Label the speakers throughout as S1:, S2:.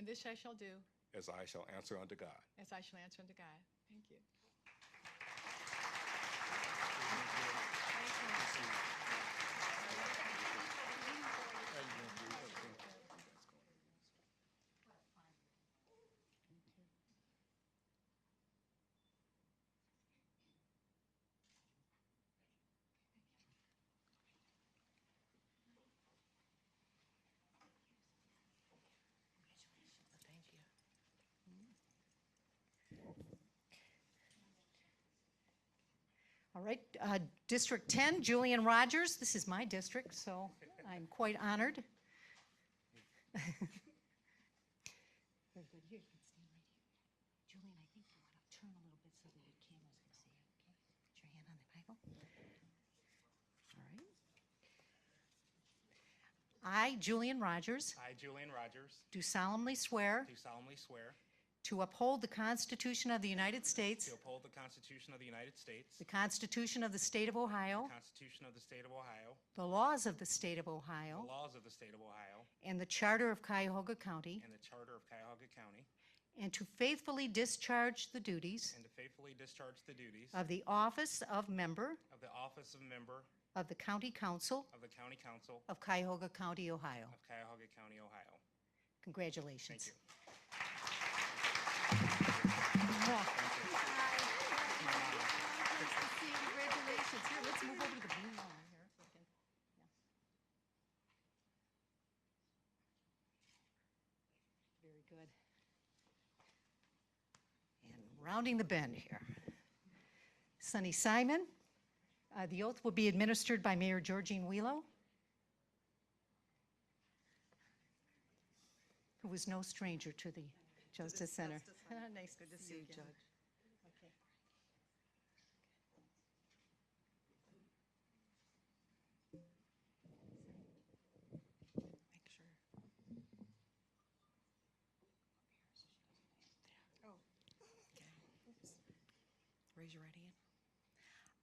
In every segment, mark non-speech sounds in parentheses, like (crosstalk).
S1: This I shall do,
S2: as I shall answer unto God.
S1: as I shall answer unto God. Thank you.
S3: Thank you. All right, uh, District 10, Julian Rogers. This is my district, so I'm quite honored. (laughs) Very good. Here, you can stand right here. Julian, I think you want to turn a little bit so that your cameras can see you, okay? Put your hand on the Bible. All right. I, Julian Rogers,
S4: I, Julian Rogers,
S3: do solemnly swear
S4: do solemnly swear
S3: to uphold the Constitution of the United States.
S4: to uphold the Constitution of the United States,
S3: The Constitution of the State of
S4: the
S3: Ohio,
S4: Constitution of the State of Ohio,
S3: the laws of the State of
S4: the
S3: Ohio,
S4: laws of the State of Ohio,
S3: and the Charter of Cuyahoga County,
S4: and the Charter of Cuyahoga County,
S3: and to faithfully discharge the duties
S4: and to faithfully discharge the duties
S3: of the office of member
S4: of the office of member
S3: of the County Council
S4: of the County Council
S3: of Cuyahoga County, Ohio.
S4: of Cuyahoga County, Ohio. Thank
S3: Congratulations.
S4: you. Thank you.
S3: Congratulations. Here, let's move over to the blue line here. if we can. Yeah. Very good. And rounding the bend here. Sonny Simon. Uh, The oath will be administered by Mayor Georgine Wheelo, who was no stranger to the Justice Center. (laughs) Nice to see you, Judge.
S1: Make sure. Oh.
S5: Okay. Raise your right hand.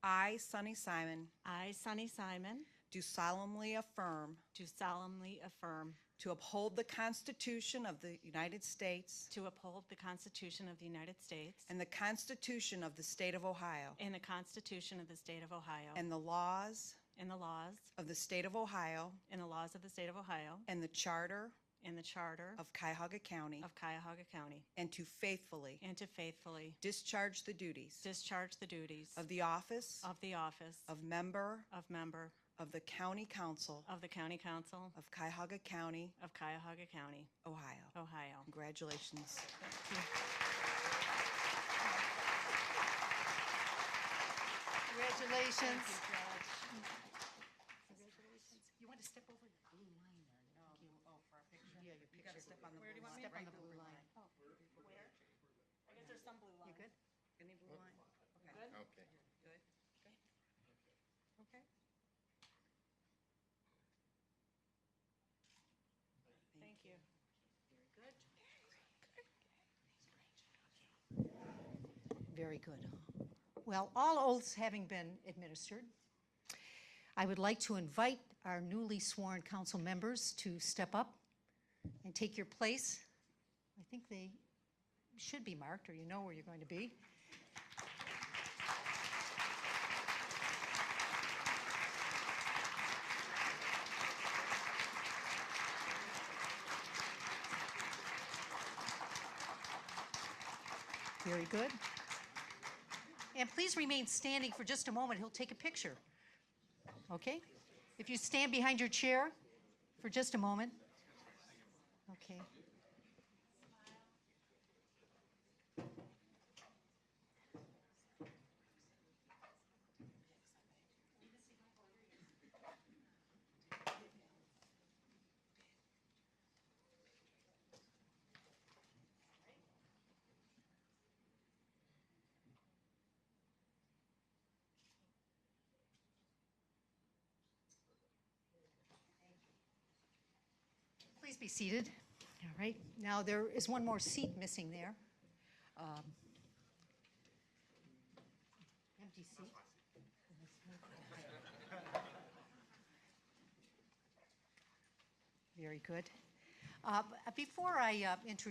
S5: I, Sunny Simon,
S6: I, Sunny Simon,
S5: do solemnly affirm
S6: do solemnly affirm
S5: to uphold the Constitution of the United States
S6: to uphold the Constitution of the United States
S5: and the Constitution of the State of Ohio
S6: and the Constitution of the State of Ohio
S5: and the laws
S6: and the laws
S5: of the State of Ohio
S6: and the laws of the State of Ohio
S5: and the Charter
S6: and the Charter
S5: of Cuyahoga County
S6: of Cuyahoga County,
S5: and to faithfully
S6: and to faithfully
S5: discharge the duties
S6: discharge the duties
S5: of the office
S6: of the office
S5: of member
S6: of member
S5: of the County Council
S6: of the County Council
S5: of Cuyahoga County,
S6: of Cuyahoga County,
S5: Ohio.
S6: Ohio.
S5: Congratulations.
S3: Congratulations. You want to step over the blue line there? No. Oh, for our picture? Yeah, your picture. You gotta step on the blue line. Where do you want me to? Step on the blue line. Where? I guess there's some blue line. You good? Any blue line? Okay.
S2: Okay.
S5: Good? Okay.
S6: Thank you.
S3: Very good. Well, all oaths having been administered, I would like to invite our newly sworn council members to step up and take your place. I think they should be marked, or you know where you're going to be. Very good. And please remain standing for just a moment. He'll take a picture. Okay? If you stand behind your chair for just a moment. Okay. Please be seated. All right. Now, there is one more seat missing there. Um, Empty seat. Very good. Uh, b- Before I uh, introduce